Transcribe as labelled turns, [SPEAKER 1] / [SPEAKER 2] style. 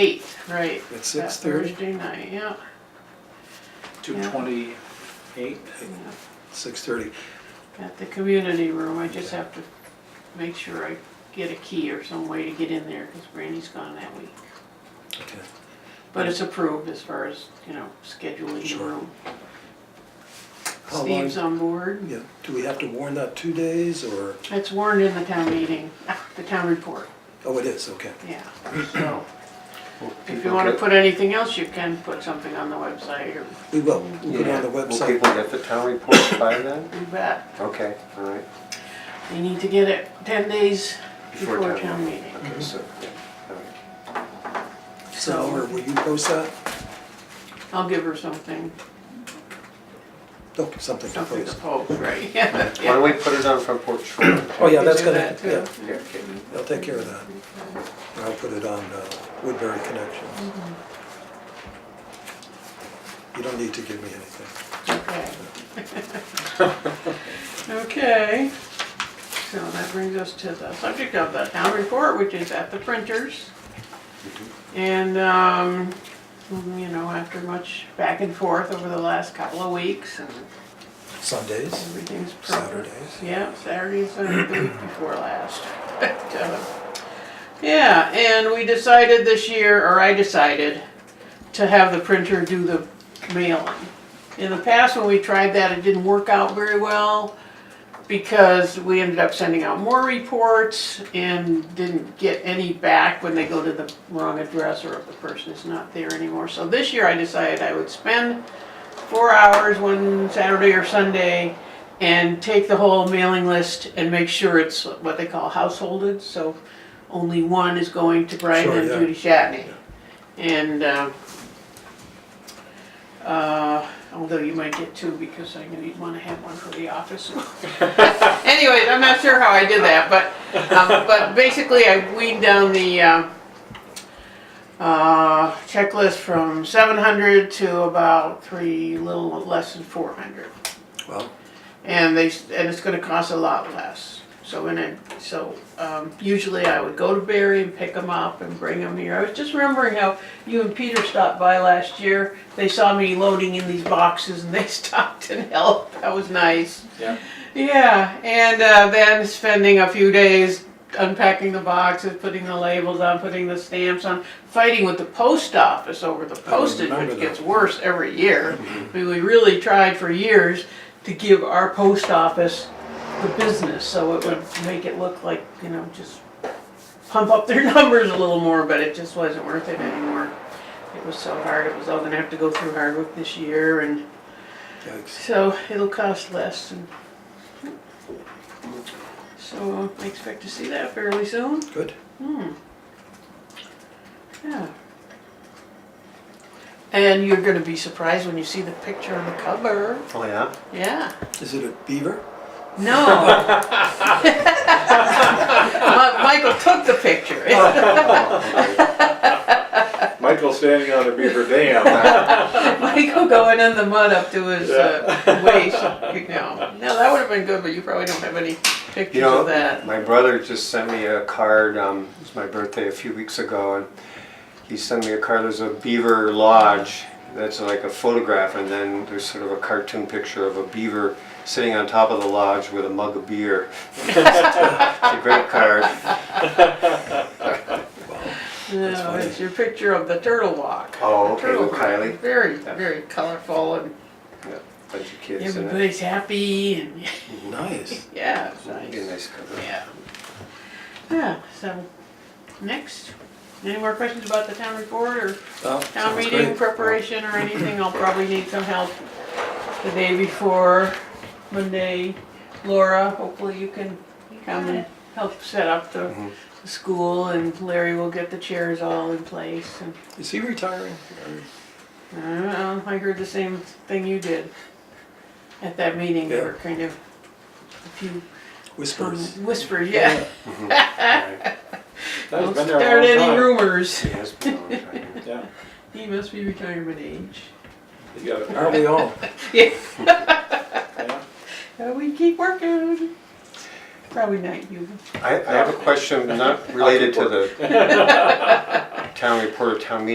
[SPEAKER 1] Eight, right.
[SPEAKER 2] At
[SPEAKER 1] that
[SPEAKER 2] 6:30?
[SPEAKER 1] Thursday night, yeah.
[SPEAKER 2] Two
[SPEAKER 1] Yeah.
[SPEAKER 2] twenty-eight,
[SPEAKER 1] yeah.
[SPEAKER 2] six thirty.
[SPEAKER 1] At the community room, I just have to make sure I get a key or some way to get in there, cause Brandy's gone that week.
[SPEAKER 2] Okay.
[SPEAKER 1] But it's approved as far as, you know, scheduling the
[SPEAKER 2] Sure.
[SPEAKER 1] room.
[SPEAKER 2] How long-
[SPEAKER 1] Steve's on board.
[SPEAKER 2] Yeah, do we have to warn that two days or,
[SPEAKER 1] It's warned in the town meeting, the town report,
[SPEAKER 2] oh, it is, okay.
[SPEAKER 1] yeah, so. If you wanna put anything else, you can put something on the website or,
[SPEAKER 2] We will, we'll put it on the
[SPEAKER 3] Will
[SPEAKER 2] website.
[SPEAKER 3] people get the town report by then?
[SPEAKER 1] you bet.
[SPEAKER 3] Okay, all right.
[SPEAKER 1] They need to get it ten days before town meeting.
[SPEAKER 3] Okay, so, yeah, all right.
[SPEAKER 2] So, or will you post that?
[SPEAKER 1] I'll give her something,
[SPEAKER 2] Oh, something to
[SPEAKER 1] something to
[SPEAKER 2] post.
[SPEAKER 1] post, right? Yeah.
[SPEAKER 3] Why don't we put it on Front Porch Forum?
[SPEAKER 2] Oh, yeah, that's
[SPEAKER 1] Do
[SPEAKER 2] gonna,
[SPEAKER 1] that too.
[SPEAKER 2] yeah,
[SPEAKER 3] Yeah, okay.
[SPEAKER 2] I'll take care of that. And I'll put it on uh, Woodbury Connections. You don't need to give me anything.
[SPEAKER 1] Okay. Okay, so that brings us to the subject of the town report, which is at the printers.
[SPEAKER 2] Mm-hmm.
[SPEAKER 1] And, um, you know, after much back and forth over the last couple of weeks and
[SPEAKER 2] Sundays,
[SPEAKER 1] everything's proper.
[SPEAKER 2] Saturdays.
[SPEAKER 1] Yeah, Saturday, Sunday, the week before last. But, uh, Yeah, and we decided this year, or I decided, to have the printer do the mailing. In the past, when we tried that, it didn't work out very well because we ended up sending out more reports and didn't get any back when they go to the wrong address or if the person is not there anymore. So this year I decided I would spend four hours one Saturday or Sunday and take the whole mailing list and make sure it's what they call householded, so only one is going to Brian
[SPEAKER 2] Sure,
[SPEAKER 1] and
[SPEAKER 2] yeah.
[SPEAKER 1] Judy Shatney. And, uh, uh, although you might get two because I knew you'd wanna have one for the office. Anyways, I'm not sure how I did that, but, um, but basically I weaned down the, uh, uh, checklist from seven hundred to about three, little less than four hundred.
[SPEAKER 2] well,
[SPEAKER 1] And they, s- and it's gonna cost a lot less. So in it, so, um, usually I would go to Barry and pick them up and bring them here. I was just remembering how you and Peter stopped by last year. They saw me loading in these boxes and they stopped and helped. That was nice.
[SPEAKER 4] Yeah.
[SPEAKER 1] Yeah, and, uh, then spending a few days unpacking the boxes, putting the labels on, putting the stamps on, fighting with the post office over the postage,
[SPEAKER 2] remember
[SPEAKER 1] which gets
[SPEAKER 2] that. Mm-hmm.
[SPEAKER 1] worse every year. I mean, we really tried for years to give our post office the business, so it would make it look like, you know, just pump up their numbers a little more, but it just wasn't worth it anymore. It was so hard, it was all gonna have to go through Hardwick this year, and
[SPEAKER 2] yikes.
[SPEAKER 1] so it'll cost less, and so uh, I expect to see that fairly soon, Hmm.
[SPEAKER 2] Good.
[SPEAKER 1] yeah. And you're gonna be surprised when you see the picture on the cover,
[SPEAKER 3] Oh, yeah?
[SPEAKER 1] yeah.
[SPEAKER 2] Is it a beaver?
[SPEAKER 1] No. Mi- Michael took the picture.
[SPEAKER 3] Oh,
[SPEAKER 4] Michael's standing on a beaver dam.
[SPEAKER 1] Michael going in the mud up to his uh, waist. You know. No, that would have been good, but you probably don't have any pictures
[SPEAKER 3] You know,
[SPEAKER 1] of that.
[SPEAKER 3] my brother just sent me a card, um, it was my birthday a few weeks ago, and he sent me a card, there's a beaver lodge, that's like a photograph, and then there's sort of a cartoon picture of a beaver sitting on top of the lodge with a mug of beer. It's a great card.
[SPEAKER 1] No,
[SPEAKER 2] funny.
[SPEAKER 1] it's your picture of the turtle walk.
[SPEAKER 3] Oh,
[SPEAKER 1] The
[SPEAKER 3] okay,
[SPEAKER 1] turtle
[SPEAKER 3] with Kylie.
[SPEAKER 1] walk. Very, very colorful, and
[SPEAKER 3] Bunch of kids in it.
[SPEAKER 1] everybody's happy, and
[SPEAKER 2] Nice.
[SPEAKER 1] yeah, it's
[SPEAKER 3] Be a
[SPEAKER 1] nice.
[SPEAKER 3] nice cover.
[SPEAKER 1] Yeah. Yeah. So, next, any more questions about the town report or?
[SPEAKER 2] Well,
[SPEAKER 1] Town
[SPEAKER 2] sounds
[SPEAKER 1] meeting
[SPEAKER 2] great.
[SPEAKER 1] preparation or anything, I'll probably need some help the day before, Monday. Laura, hopefully you can come and help set up the,
[SPEAKER 4] Mm-hmm.
[SPEAKER 1] the school and Larry will get the chairs all in place and,
[SPEAKER 2] Is he retiring?
[SPEAKER 1] I don't know, I heard the same thing you did at that meeting, there were kind of a few
[SPEAKER 2] Whispers.
[SPEAKER 1] whispers, yeah.
[SPEAKER 3] Right.
[SPEAKER 4] That's
[SPEAKER 1] Don't
[SPEAKER 4] been
[SPEAKER 1] start
[SPEAKER 4] there a
[SPEAKER 1] any
[SPEAKER 4] long time.
[SPEAKER 1] rumors,
[SPEAKER 3] He has been on time.
[SPEAKER 4] Yeah,
[SPEAKER 1] he must be retirement age.
[SPEAKER 4] you got it.
[SPEAKER 2] Aren't we all?
[SPEAKER 1] Yeah,
[SPEAKER 4] Yeah.
[SPEAKER 1] we keep working. Probably not you.
[SPEAKER 3] I, I have a question not related to the town reporter, town meeting